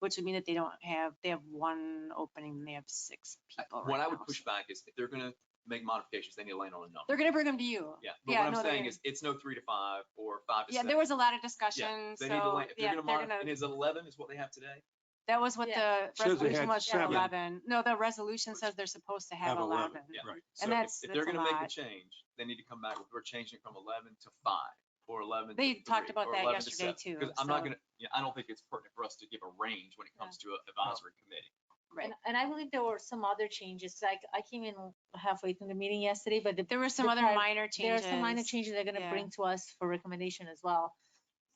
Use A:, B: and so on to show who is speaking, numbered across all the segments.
A: which would mean that they don't have, they have one opening and they have six
B: I-
A: people right
B: What I
A: now.
B: would push back is if they're gonna make modifications, they need to land on a number.
A: They're gonna bring them to you.
B: Yeah, but
A: yeah,
B: what
A: no,
B: I'm
A: they're
B: saying
A: gonna-
B: is, it's no three to five or five to
A: Yeah,
B: seven.
A: there was a lot of discussion,
B: They need to
A: so,
B: land, if
A: yeah,
B: they're
A: they're
B: gonna modify,
A: gonna,
B: and is eleven is what they have today?
A: that was what the
C: Says they
A: resolution
C: had
A: was for
C: seven.
A: eleven. No, the resolution says they're supposed to have eleven.
B: yeah.
C: Right.
B: So if-
A: that's-
B: If they're
A: that's a
B: gonna make a
A: lot.
B: change, they need to come back, with we're changing it from eleven to five or eleven
A: They
B: to
A: talked
B: three,
A: about
B: or
A: that
B: 11 to
A: yesterday
B: seven.
A: too,
B: Cause I'm not
A: so-
B: gonna, yeah, I don't think it's pertinent for us to give a range when it comes to an advisory committee.
A: Right.
D: And, and I believe there were some other changes, like I came in halfway through the meeting yesterday, but the-
A: There were some
D: the
A: other
D: pri-
A: minor
D: there are
A: changes.
D: some minor changes they're gonna
A: yeah.
D: bring to us for recommendation as well.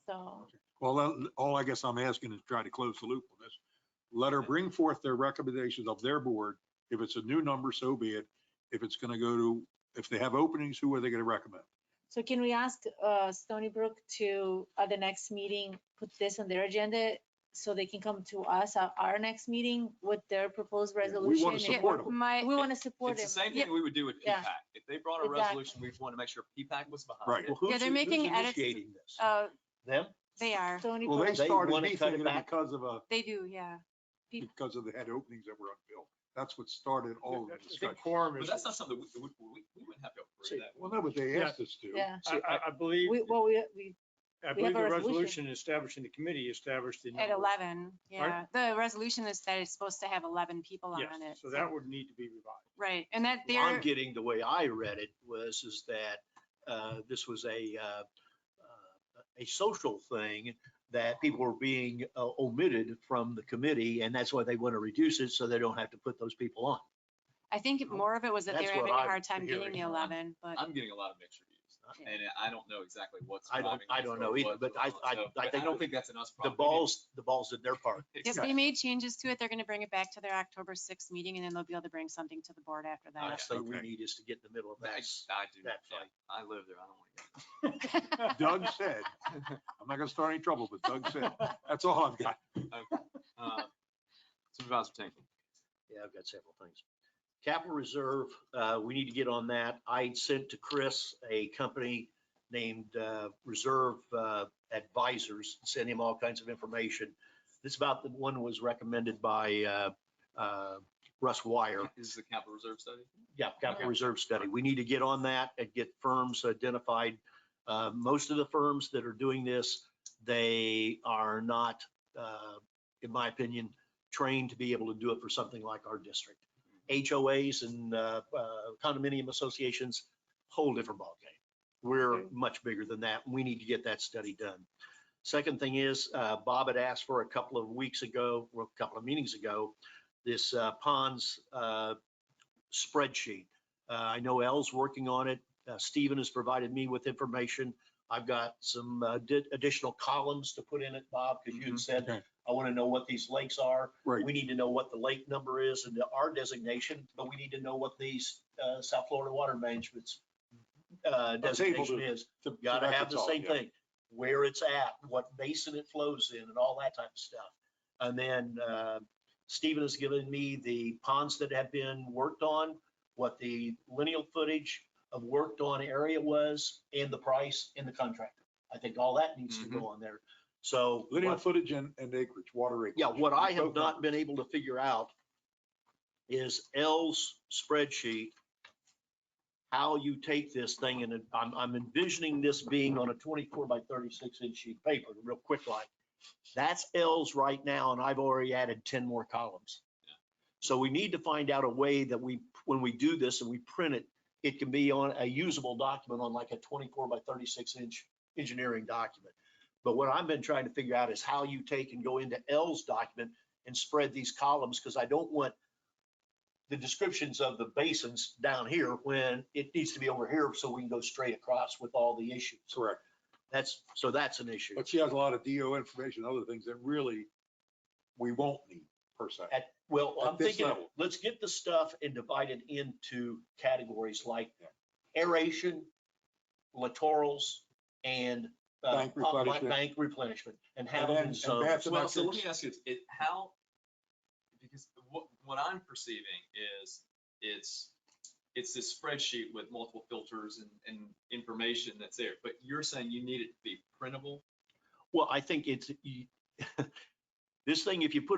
D: So,
C: Well, then, all I guess I'm asking is try to close the loop on this. Let her bring forth their recommendations of their board. If it's a new number, so be it. If it's going to go to, if they have openings, who are they going to recommend?
D: so can we ask uh, Stony Brook to, at the next meeting, put this on their agenda? So they can come to us at our next meeting with their proposed
C: Yeah, we wanna
D: resolution. and-
C: support 'em.
A: My,
D: We want to support
B: It's
D: them.
B: the same
A: Yep.
B: thing we would do with
D: Yeah.
B: PPAC. If they brought a
D: Exactly.
B: resolution, we'd want to make sure PPAC was
C: Right.
B: behind it.
E: Well, who's
A: Yeah, they're
E: in- who's
A: making edits to-
E: Initiating this.
A: uh,
E: Them?
A: they are,
D: Stony
C: Well, they
D: Brook,
E: They
C: started
E: wanna
C: me
E: cut it
C: thinking
E: back.
C: because of a,
A: they do, yeah.
C: because of the head openings that were unfilled. That's what started
E: Oh,
C: all of the
F: The
C: discussion.
F: quorum
B: But
F: is,
B: that's not something we, we, we we wouldn't have to
E: See,
B: approve that.
C: Well, no, but they asked us to.
D: yeah,
F: I, I- I believe,
D: we, well, we, we we
F: I
D: have
F: believe
D: a
F: the
D: resolution.
F: resolution establishing the committee established the.
A: At
F: number.
A: eleven, yeah.
F: Pardon?
A: The resolution is that it's supposed to have eleven people on
F: Yes,
A: it.
F: so that would need to be revised.
A: Right, and that
E: Well, I'm
A: they're,
E: getting, the way I read it was, is that uh, this was a, uh, uh, a social thing that people were being uh, omitted from the committee, and that's why they want to reduce it, so they don't have to put those people on.
A: I think
B: Oh,
A: more of it was that they
E: That's
A: were having
E: what
A: a
E: I'm
A: hard time getting
E: hearing.
A: the eleven, but
B: I'm getting a lot of mixed
A: Yeah.
B: reviews and I don't know exactly what's.
E: I don't-
B: driving
E: I
B: this
E: don't
B: or
E: know either,
B: what's
E: but
B: going
E: I-
B: on.
E: I-
B: So,
E: I
B: but
E: think
B: don't think that's an us
E: The
B: problem. We need to
E: balls, the balls in their part.
A: if they made changes to it, they're gonna bring it back to their October sixth meeting and then they'll be able to bring something to the board after
E: I
A: that.
E: say we
C: Okay.
E: need is to get in the middle of
B: I,
E: that.
B: I do,
E: that
B: yeah.
E: fight.
B: I live there, I don't want to.
C: Doug said, I'm not going to start any trouble, but Doug said, that's all I've got.
B: Uh, Supervisor Tinkle.
E: Yeah, I've got several things. Capital Reserve, uh, we need to get on that. I sent to Chris a company named, uh, Reserve uh, Advisors, sent him all kinds of information. This about the one was recommended by, uh, uh, Russ Wire.
B: This is the capital reserve study.
E: Yeah,
B: Okay.
E: capital reserve study. We need to get on that and get firms identified. Uh, Most of the firms that are doing this, they are not, uh, in my opinion, trained to be able to do it for something like our district. HOAs and uh, uh, condominium associations, whole different ballgame. We're much bigger than that. We need to get that study done. Second thing is, uh, Bob had asked for a couple of weeks ago, or a couple of meetings ago, this uh, ponds uh, spreadsheet. Uh, I know Elle's working on it. Uh, Stephen has provided me with information. I've got some uh, di- additional columns to put in it, Bob, because you had
B: Mhm.
E: said,
C: Okay.
E: I want to know what these lakes are.
C: Right.
E: We need to know what the lake number is and our designation, but we need to know what these uh, South Florida Water Management's uh, designation
C: to-
E: is.
C: So- so
E: Gotta
C: that's
E: have the
C: all,
E: same
C: yeah.
E: thing, where it's at, what basin it flows in and all that type of stuff. And then uh, Stephen has given me the ponds that have been worked on, what the lineal footage of worked on area was and the price and the contractor. I think all that needs to
C: Mm-hmm.
E: go on there. So.
C: Linear
E: what-
C: footage and, and acreage, water acreage.
E: yeah, what I have
C: Both
E: not been
C: numbers.
E: able to figure out is L's spreadsheet, how you take this thing and it- I'm, I'm envisioning this being on a 24 by 36 inch sheet paper, real quick like. That's L's right now and I've already added 10 more columns. So we need to find out a way that we, when we do this and we print it, it can be on a usable document on like a 24 by 36 inch engineering document. But what I've been trying to figure out is how you take and go into L's document and spread these columns, because I don't want the descriptions of the basins down here when it needs to be over here, so we can go straight across with all the issues.
C: Correct.
E: That's, so that's an issue.
C: But she has a lot of DO information, other things that really we won't need per se.
E: At- Well,
C: at
E: I'm
C: this
E: thinking,
C: level.
E: let's get the stuff and divide it into categories like aeration, littorals, and uh,
C: Bank
E: pump-
C: replenishment.
E: Bank replenishment, and
C: And
E: have
C: then-
E: them in
C: and
E: zones.
C: baths and
B: Well, so let me
C: exits.
B: ask you, this, it, how, because what, what I'm perceiving is, it's, it's this spreadsheet with multiple filters and, and information that's there, but you're saying you need it to be printable?
E: Well, I think it's, you- this thing, if you put